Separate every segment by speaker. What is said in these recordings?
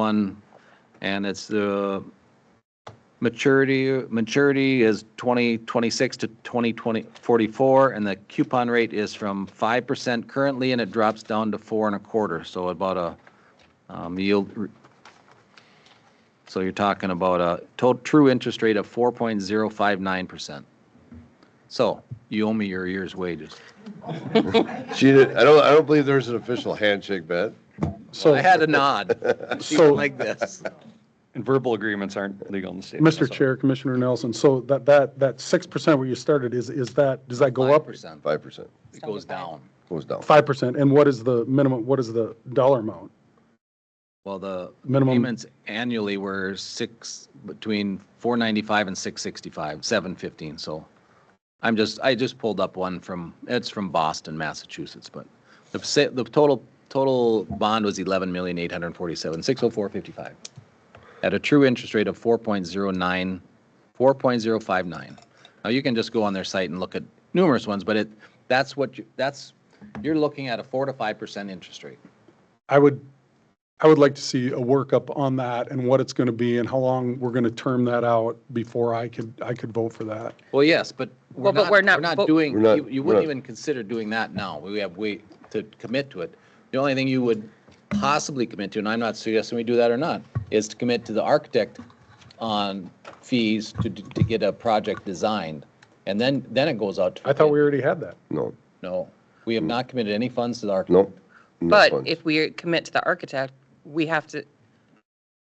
Speaker 1: one, and it's the maturity, maturity is 2026 to 2044, and the coupon rate is from 5% currently, and it drops down to four and a quarter, so about a um, yield. So you're talking about a total, true interest rate of 4.059%. So you owe me your year's wages.
Speaker 2: She did, I don't, I don't believe there's an official handshake bet.
Speaker 3: So,
Speaker 1: I had a nod,
Speaker 3: So-
Speaker 1: like this.
Speaker 4: And verbal agreements aren't legal in the state.
Speaker 3: Mr.
Speaker 4: That's all.
Speaker 3: Chair, Commissioner Nelson, so that, that, that 6% where you started, is, is that, does that go up?
Speaker 1: 5%.
Speaker 2: Five percent
Speaker 1: It goes down.
Speaker 2: goes down.
Speaker 3: 5%, and what is the minimum, what is the dollar amount?
Speaker 1: Well, the
Speaker 3: Minimum-
Speaker 1: payments annually were six, between four ninety-five and six sixty-five, seven fifteen, so. I'm just, I just pulled up one from, it's from Boston, Massachusetts, but the, sa- the total, total bond was eleven million, eight hundred and forty-seven, six oh four fifty-five. At a true interest rate of four point zero nine, four point zero five nine. Now, you can just go on their site and look at numerous ones, but it, that's what, you that's, you're looking at a four to five percent interest rate.
Speaker 3: I would, I would like to see a workup on that and what it's going to be and how long we're going to term that out before I could, I could vote for that.
Speaker 1: Well, yes, but we're
Speaker 5: Well, but
Speaker 1: not,
Speaker 5: we're
Speaker 1: we're
Speaker 5: not
Speaker 1: not
Speaker 5: vo-
Speaker 1: doing,
Speaker 2: We're not-
Speaker 1: you you
Speaker 2: we're
Speaker 1: wouldn't
Speaker 2: not-
Speaker 1: even consider doing that now. We have way to commit to it. The only thing you would possibly commit to, and I'm not suggesting we do that or not, is to commit to the architect on fees to, d- to get a project designed. And then, then it goes out to.
Speaker 3: I thought we already had that.
Speaker 2: No,
Speaker 1: No, we have not committed any funds to the architect.
Speaker 2: no. no
Speaker 5: But
Speaker 2: funds.
Speaker 5: if we commit to the architect, we have to,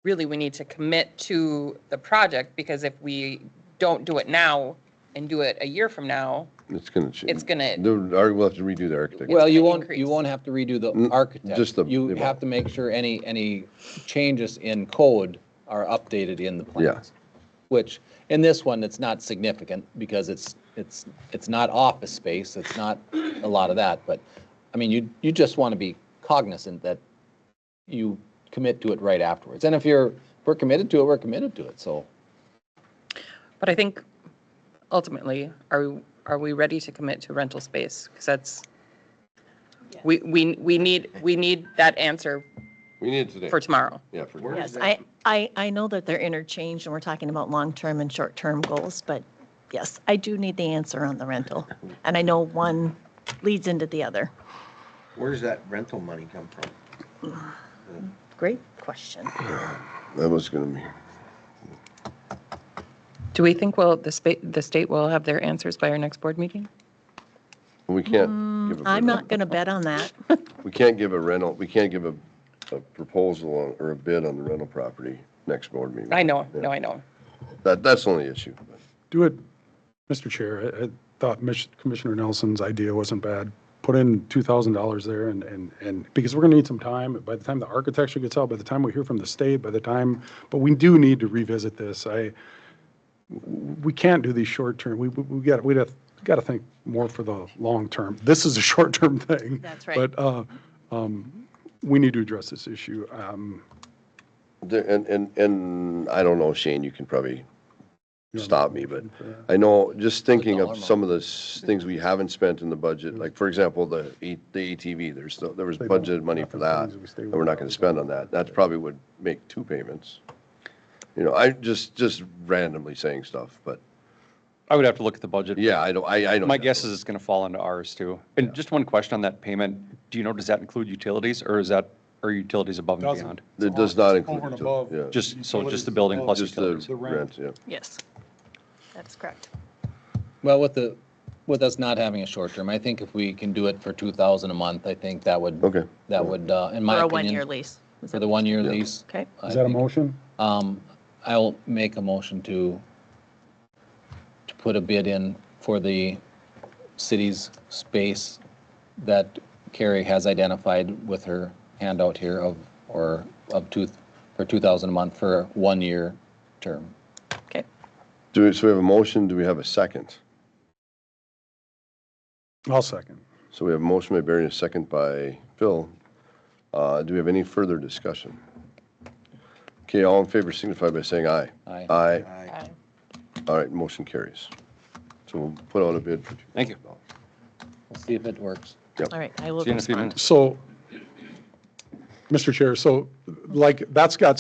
Speaker 5: really, we need to commit to the project because if we don't do it now and do it a year from now,
Speaker 2: It's gonna change.
Speaker 5: it's gonna-
Speaker 2: We'll have to redo the architect.
Speaker 1: Well, you
Speaker 5: gonna
Speaker 1: won't, you
Speaker 5: increase.
Speaker 1: won't have to redo the architect.
Speaker 2: Mm, just the-
Speaker 1: You
Speaker 2: they won't.
Speaker 1: have to make sure any, any changes in code are updated in the plans. Which, in this one, it's not significant because it's, it's, it's not office space, it's not a lot of that, but, I mean, you, you just want to be cognizant that you commit to it right afterwards. And if you're, if we're committed to it, we're committed to it, so.
Speaker 5: but I think ultimately, are, we are we ready to commit to rental space? Because that's, we, we, we need, we need that answer
Speaker 2: We need it today.
Speaker 5: for tomorrow.
Speaker 2: Yeah, for.
Speaker 6: Yes, I, I, I know that they're interchanged and we're talking about long-term and short-term goals, but yes, I do need the answer on the rental. And I know one leads into the other.
Speaker 7: Where does that rental money come from?
Speaker 6: Great question.
Speaker 2: That was gonna be,
Speaker 5: Do we think, well, the state, the state will have their answers by our next board meeting?
Speaker 2: we can't. give a bid
Speaker 6: Mm, I'm
Speaker 2: on-
Speaker 6: not going to bet on that.
Speaker 2: We can't give a rental, we can't give a, a proposal on- or a bid on the rental property next board meeting.
Speaker 5: I know, no, I know.
Speaker 2: That, that's the only issue.
Speaker 3: Do it, Mr. Chair, I I thought Mich- Commissioner Nelson's idea wasn't bad. Put in $2,000 there and, and, and, because we're going to need some time, by the time the architecture gets out, by the time we hear from the state, by the time, but we do need to revisit this. I, we can't do these short term, we, we we got, we got, got to think more for the long term. This is a short term thing.
Speaker 6: That's right.
Speaker 3: But, uh, um, we need to address this issue. Um,
Speaker 2: There- And, and, and I don't know, Shane, you can probably stop me, but I know, just thinking
Speaker 1: dollar
Speaker 2: of some of the s- things we haven't spent in the budget, like, for example, the A- the ATV, there's, no- there was
Speaker 3: They don't-
Speaker 2: budgeted money for that,
Speaker 3: Things we stay
Speaker 2: and
Speaker 3: with.
Speaker 2: we're not gonna spend on that. That probably would make two payments. You know, I just, just randomly saying stuff, but,
Speaker 4: I would have to look at the budget.
Speaker 2: yeah, I don't, I, I don't.
Speaker 4: My
Speaker 2: know.
Speaker 4: guess is it's going to fall into ours too. And just one question on that payment. Do you know, does that include utilities or is that, are utilities above and
Speaker 3: Doesn't.
Speaker 4: beyond?
Speaker 2: It does not
Speaker 3: Over
Speaker 2: include,
Speaker 3: and
Speaker 2: util-
Speaker 3: above.
Speaker 2: yeah,
Speaker 4: Just, so just the building plus
Speaker 2: just the
Speaker 4: utilities.
Speaker 2: rent, yeah.
Speaker 6: Yes. That's correct.
Speaker 1: Well, with the, with us not having a short term, I think if we can do it for 2,000 a month, I think that would.
Speaker 2: Okay.
Speaker 1: That would, uh, in my
Speaker 6: For
Speaker 1: opinion.
Speaker 6: a one-year lease. Is
Speaker 1: for
Speaker 6: that-
Speaker 1: the one-year
Speaker 2: Yeah.
Speaker 1: lease.
Speaker 6: Okay.
Speaker 1: I
Speaker 3: Is that a
Speaker 1: think.
Speaker 3: motion?
Speaker 1: Um, I'll make a motion to, to put a bid in for the city's space that Carrie has identified with her handout here of, or of two, for 2,000 a month for a one-year term.
Speaker 6: Okay.
Speaker 2: Do, we- so we have a motion, do we have a second?
Speaker 3: I'll second.
Speaker 2: So we have a motion by Barry and a second by Phil. Uh, Do we have any further discussion? Okay, all in favor signify by saying aye.
Speaker 1: Aye.
Speaker 2: Aye.
Speaker 7: I-
Speaker 2: All right, motion carries. So we'll put out a bid for.
Speaker 4: Thank you.
Speaker 1: We'll see if it works.
Speaker 6: All right. I will
Speaker 4: See you in a few
Speaker 6: respond.
Speaker 4: minutes.
Speaker 3: So, Mr. Chair, so like, that's got